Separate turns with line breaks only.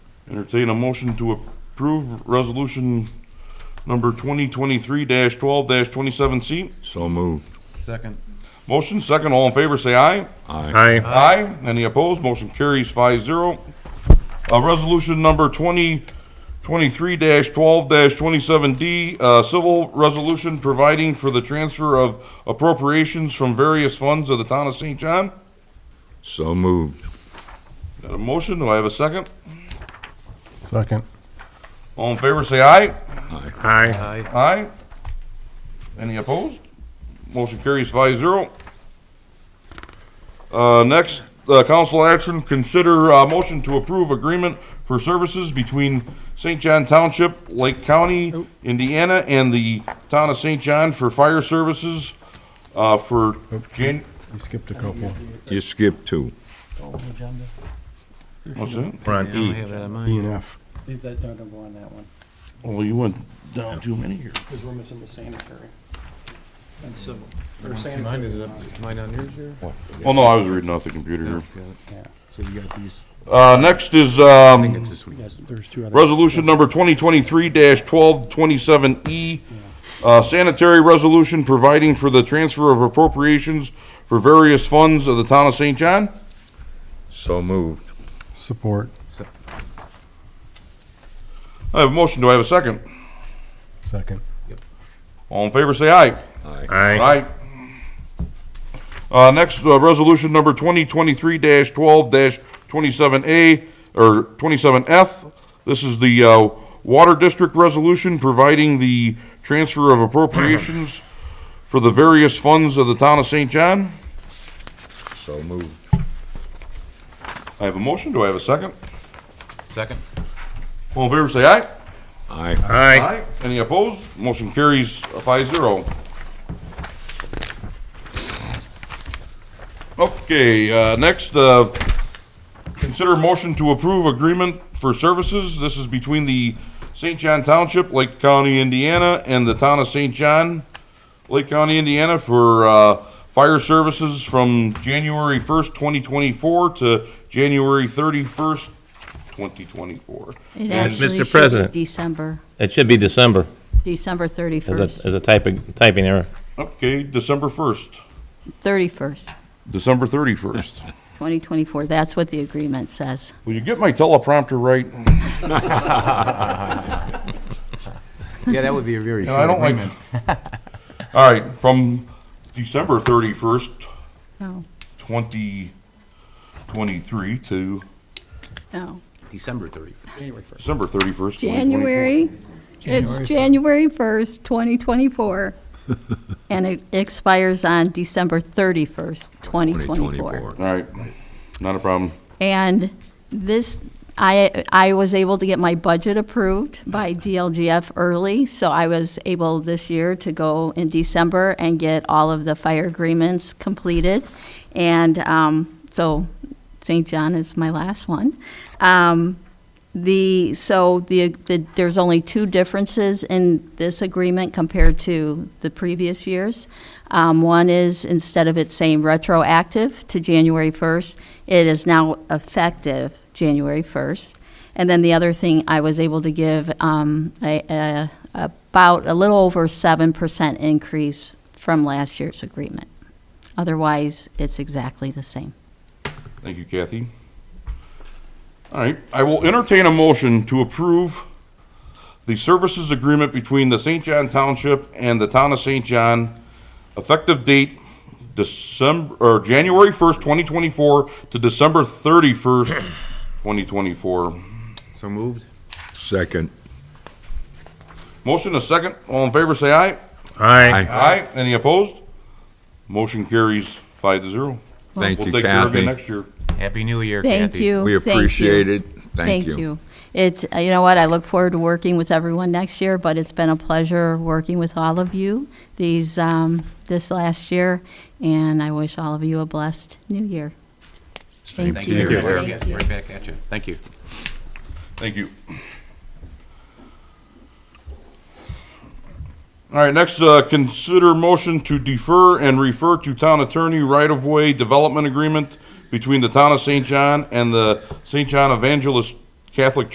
Entertain a motion to approve resolution number twenty twenty-three twelve twenty-seven C.
So moved.
Second.
Motion second, all in favor, say aye.
Aye.
Aye.
Aye. Any opposed? Motion carries five zero. Uh, resolution number twenty twenty-three twelve twenty-seven D, uh, civil resolution providing for the transfer of appropriations from various funds of the town of St. John.
So moved.
Got a motion? Do I have a second?
Second.
All in favor, say aye.
Aye.
Aye.
Aye. Any opposed? Motion carries five zero. Uh, next, uh, council action, consider, uh, motion to approve agreement for services between St. John Township, Lake
Oh.
County, Indiana, and the town of St. John for fire services, uh, for Jan,
You skipped a couple.
You skipped two.
what's it?
We're
I
on
don't
E.
have that in
E
mind.
and F.
Is that no number on that one?
Well, you went down too many here.
Because we're missing the sanitary. And civil. Or
Mine
sanitary.
is up, mine on yours here?
Well, Oh, no, I was reading off the computer here.
So you got these.
Uh, next is, um,
Yes, there's two other.
Resolution number 2023-1227E, uh, sanitary resolution providing for the transfer of appropriations for various funds of the town of St. John.
So moved.
Support.
I have a motion, do I have a second?
Second.
All in favor, say aye.
Aye.
Aye.
Uh, next, uh, resolution number 2023-12-27A, or 27F. This is the, uh, Water District Resolution providing the transfer of appropriations for the various funds of the town of St. John.
So moved.
I have a motion, do I have a second?
Second.
All in favor, say aye.
Aye.
Aye.
Any opposed? Motion carries five zero. Okay, uh, next, uh, consider motion to approve agreement for services. This is between the St. John Township, Lake County, Indiana, and the town of St. John, Lake County, Indiana, for uh, fire services from January 1st, 2024 to January 31st, 2024.
It
And
actually should
Mr.
be
President.
December,
It should be December
December
as a,
31st,
as a typing, typing error.
Okay, December 1st.
31st,
December 31st.
2024. That's what the agreement says.
Will you get my teleprompter right?
Yeah, that would be a very
And I
short
don't like.
agreement.
All right, from December 31st,
No,
2023 to
no.
December 30th.
December 31st. 2024.
January, it's January 1st, 2024, and it expires on December 31st, 2024.
All right, not a problem.
And this, I, I was able to get my budget approved by DLGF early, so I was able this year to go in December and get all of the fire agreements completed. And um, so St. John is my last one. Um, The, so the, the- there's only two differences in this agreement compared to the previous years. Um, One is, instead of it saying retroactive to January 1st, it is now effective January 1st. And then the other thing, I was able to give um, a- a- about a little over 7% increase from last year's agreement. Otherwise, it's exactly the same.
Thank you, Kathy. All right, I will entertain a motion to approve the services agreement between the St. John Township and the Town of St. John, effective date December, or January first, twenty twenty-four to December thirty-first, twenty twenty-four.
So moved?
Second.
Motion a second, all in favor, say aye.
Aye.
Aye. Any opposed? Motion carries five to zero.
Thank
We'll
you,
take care of you
Kathy.
next year.
Happy New Year, Kathy.
Thank you.
We
thank you.
appreciate it. Thank you.
It's, uh, you know what, I look forward to working with everyone next year, but it's been a pleasure working with all of you these, um, this last year, and I wish all of you a blessed new year. Thank you.
Right
Thank
back-
you.
Right back at you. Thank you.
Thank you. All right, next, uh, consider motion to defer and refer to town attorney right-of-way development agreement between the town of St. John and the St. John Evangelist Catholic